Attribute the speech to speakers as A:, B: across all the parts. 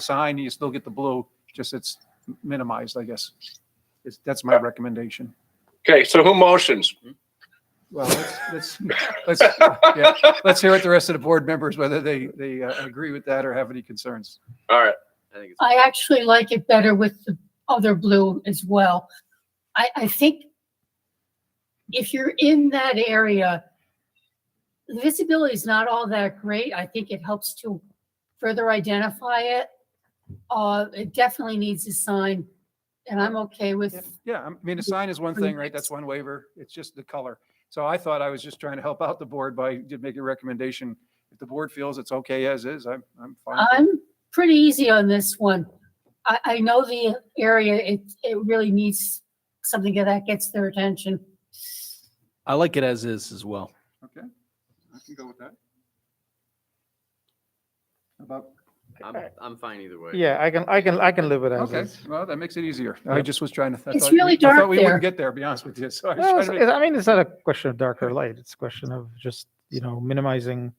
A: sign, you still get the blue, just it's minimized, I guess. It's, that's my recommendation.
B: Okay, so who motions?
A: Well, let's, let's, let's, yeah, let's hear what the rest of the board members, whether they, they uh, agree with that or have any concerns.
B: All right,
C: I think it's,
D: I actually like it better with the other blue as well. I, I think if you're in that area, the visibility is not all that great. I think it helps to further identify it. Uh, it definitely needs a sign and I'm okay with,
A: Yeah, I mean, a sign is one thing, right? That's one waiver. It's just the color. So I thought I was just trying to help out the board by, did make a recommendation. If the board feels it's okay as is, I'm, I'm fine. with it.
D: I'm pretty easy on this one. I, I know the area, it, it really needs something that gets their attention.
E: I like it as is as well.
A: Okay, I can go with that. About,
C: I'm, I'm fine either way.
F: Yeah, I can, I can, I can live with that.
A: okay, well, that makes it easier. I just was trying to. I
D: It's
A: thought we-
D: really
A: I thought
D: dark
A: we wouldn't
D: there.
A: Get there, to be honest with you, so I was
F: No,
A: trying
F: it's,
A: to
F: it's-
A: make-
F: I mean, it's not a question of dark or light. It's a question of just, you know, minimizing.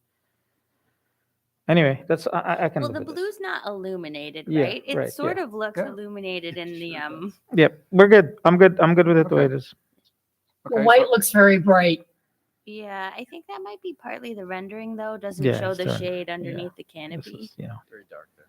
F: Anyway, that's, I, I- I can
G: Well,
F: live
G: the
F: with it.
G: blue's not illuminated,
F: Yeah,
G: right? It
F: right, yeah.
G: sort of looks
A: Yeah.
G: illuminated in the
A: Sure
G: um.
F: Yep, we're good. I'm good. I'm good with it the way it
A: Okay.
F: is.
D: The
A: Okay,
D: white
A: so-
D: looks very bright.
G: Yeah, I think that might be partly the rendering though. Doesn't
F: Yeah,
G: show
F: it's
G: the
F: dark.
G: shade underneath the
F: This
G: canopy.
F: is, you know,
C: Very dark there.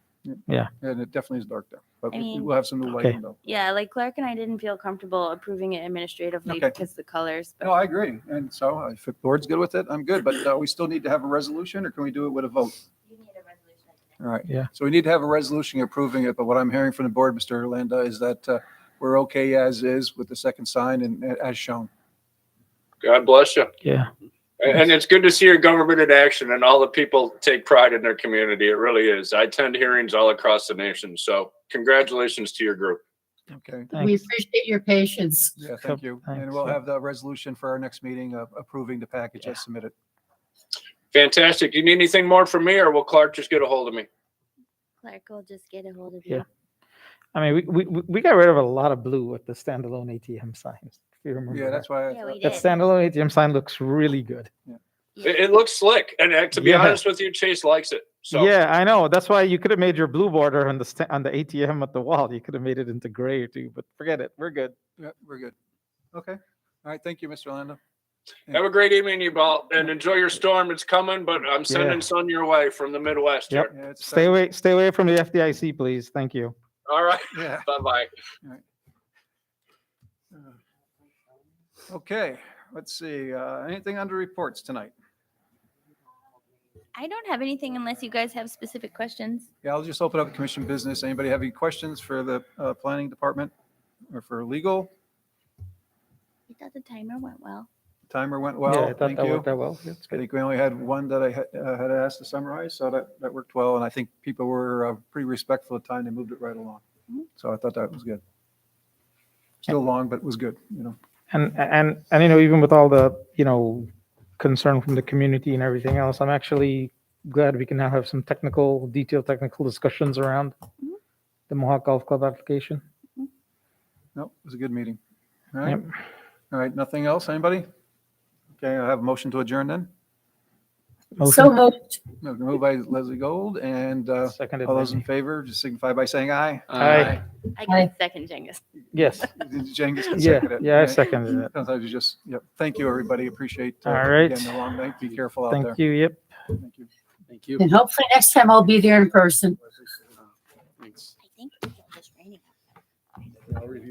A: And it definitely is dark there, but we-
G: I mean-
A: we'll have some new lighting though.
G: Yeah, like Clark and I didn't feel comfortable approving it administratively
A: Okay.
G: because the colors. But
A: No, I agree, and so uh, if the board's good with it, I'm good, but uh, we still need to have a resolution, or can we do it with a vote?
G: you need a resolution.
A: All right.
F: Yeah.
A: So we need to have a resolution approving it, but what I'm hearing from the board, Mr. Orlando, is that uh, we're okay as is with the second sign and uh, as shown.
B: God bless you.
F: yeah,
B: And and it's good to see your government in action and all the people take pride in their community. It really is. I attend hearings all across the nation. So congratulations to your group.
A: Okay.
D: We
F: thanks.
D: appreciate your patience.
A: Yeah,
F: Yep,
A: thank you. And
F: thanks,
A: we'll
F: yeah.
A: have the resolution for our next meeting of approving the package as submitted.
B: Fantastic. You need anything more from me or will Clark just get a hold of me?
G: Clark will just get a hold of
F: Yeah.
G: you.
F: I mean, we, we, we- we got rid of a lot of blue with the standalone ATM signs. If you remember.
A: Yeah, that's
F: that.
A: why. I
G: Yeah,
A: thought-
G: we
F: That
G: did.
F: standalone ATM sign looks really good.
B: It, it looks slick. And uh, to be
F: Yeah.
B: honest with you, Chase likes it. So
F: Yeah, I know. That's why you could have made your blue border on the, sta- on the ATM at the wall. You could have made it into gray too, but forget it. We're good.
A: Yeah, we're good. Okay. All right. Thank you, Mr. Orlando.
B: have a great evening, you all, and enjoy your storm. It's coming, but I'm sending sun your way from the Midwest
F: Yep.
B: here.
A: Yeah, it's-
F: Stay away, stay away from the FDIC, please. Thank you.
B: All right.
A: Yeah.
B: Bye bye.
A: Okay, let's see. Uh, anything under reports tonight?
G: I don't have anything unless you guys have specific questions.
A: Yeah, I'll just open up commission business. Anybody have any questions for the uh, planning department or for legal?
G: I thought the timer went well.
A: Timer went
F: Yeah,
A: well.
F: I thought
A: Thank
F: that
A: you.
F: worked out well. That's
A: I
F: good.
A: think we only had one that I had, uh, had asked to summarize, so that, that worked well. And I think people were uh, pretty respectful of time. They moved it right along.
G: Mhm.
A: So I thought that was good. Still long, but it was good, you know.
F: And, and, and, you know, even with all the, you know, concern from the community and everything else, I'm actually glad we can now have some technical, detailed technical discussions around the Mohawk Golf Club application.
A: No, it was a good meeting. All right.
F: Yep.
A: All right, nothing else? Anybody? Okay, I have a motion to adjourn then.
D: So
F: Motion
D: moved.
A: No, Moved by Leslie Gold and uh,
F: seconded
A: all
F: by
A: those in
F: me.
A: favor, just signify by saying aye.
C: Uh,
F: Aye.
G: I
D: Hi.
G: can second Jengus.
F: Yes,
A: Jengus can
F: yeah,
A: second it.
F: yeah, I seconded it.
A: Sometimes you just, yep. Thank you, everybody. Appreciate. uh,
F: All right.
A: Again, the long night. Be careful out there.
F: Thank you, yep.
A: Thank you.
E: Thank you.
D: And hopefully next time I'll be there in person.
G: I think it's just raining.
A: I'll review